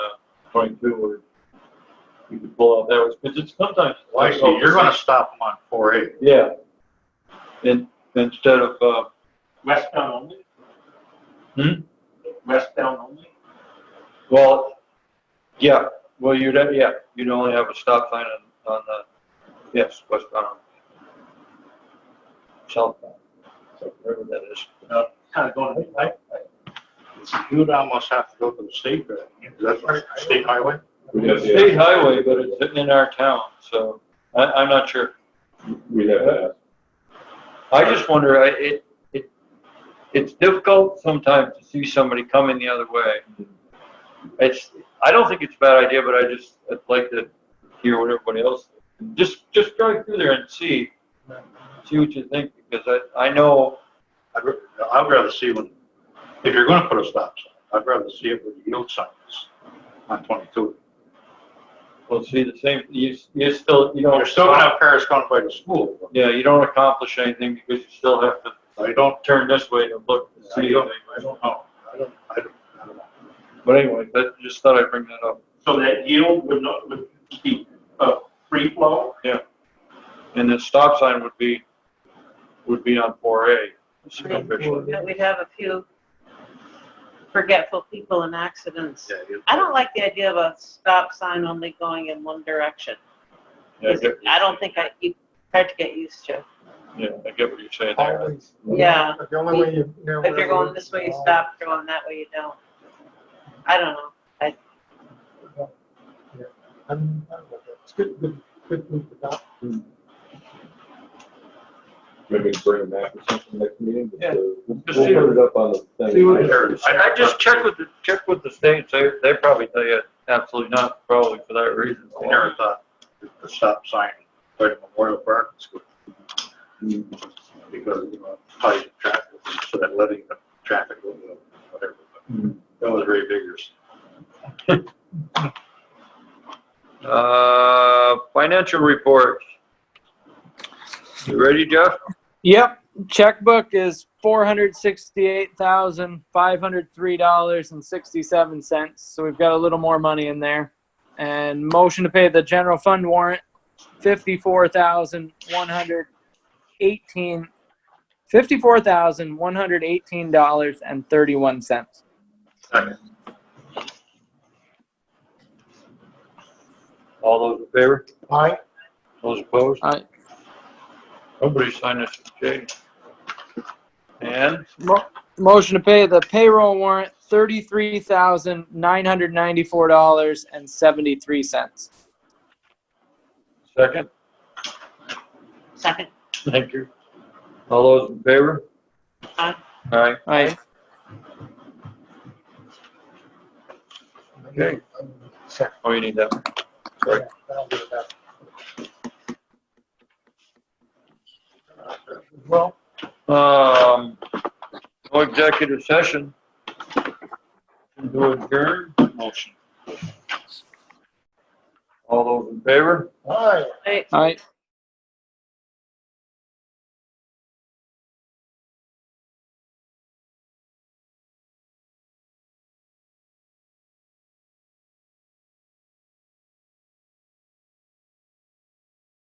twenty-two where you can pull out that was, because it's sometimes. Well, Oh, I see, you're gonna stop them on four A. Yeah. And instead of, uh, Westbound only? Hmm? Westbound only? well, yeah, well, you'd, have- yeah, you'd only have a stop sign on, on the, yes, westbound. Southbound, so wherever that is. Uh, Kind of going, I, I- You'd almost have to go to the state, road, wouldn't you? Is that state highway? We'd have uh, It's a to, state highway, but it's in our town, so I, I'm not sure. we'd have uh, to ask. I just wonder, I, it, it, it's difficult sometimes to see somebody coming the other way. It's, I don't think it's a bad idea, but I just, I'd like to hear what everybody else, just, just drive through there and see, see what you think, because I, I know, I'd, ra- I'd rather see when, if you're gonna put a stop sign, I'd rather see it with yield signs on twenty-two. we'll see the same, you, you still, you don't. You're still gonna have cars going by the school, but Yeah, you don't accomplish anything because you still have to I don't, turn this way to look to I see don't, anything. I don't know. I don't, I don't, I don't know. But anyway, that, just thought I'd bring that up. so that yield would not, would be, uh, free flow? And the stop sign would be, would be on four A. But we'd have a few forgetful people in accidents. Yeah, you- I don't like the idea of a stop sign only going in one direction. I don't think I, you, hard to get used to. Yeah, I get what you're saying there. Always. Yeah. The only way you know. If you're going this way, you stop, if you're going that way, you don't. I don't know. I'm- I'm with it. It's good, good, good move to adopt. Maybe bring a map or something next meeting. but, uh, We'll Just we'll see put it up on the See what- thing. Sure. I, I just checked with the, checked with the states, they, they probably tell you absolutely not, probably for that reason. I never thought that the stop sign by the Memorial Park is good Mm-hmm. because, you know, tight traffic, so that letting the traffic go, you know, whatever. Mm. but That was very vigorous. Uh, financial reports. You ready, Jeff? Yep, checkbook is four hundred sixty-eight thousand five hundred three dollars and sixty-seven cents. So we've got a little more money in there. And motion to pay the general fund warrant, fifty-four thousand one hundred eighteen, fifty-four thousand one hundred eighteen dollars and thirty-one cents. All those in favor? Aye. Those opposed? Aye. Nobody signed this, Jay. And Mo- motion to pay the payroll warrant, thirty-three thousand nine hundred ninety-four dollars and seventy-three cents. second? Second, Thank you. All those in favor? Aye. Aye. Aye. Okay. Second. Oh, you need that. one. Sorry. I'll do that. Well, Um, no executive session. Do adjourn motion. All those in favor? aye. wait, All right,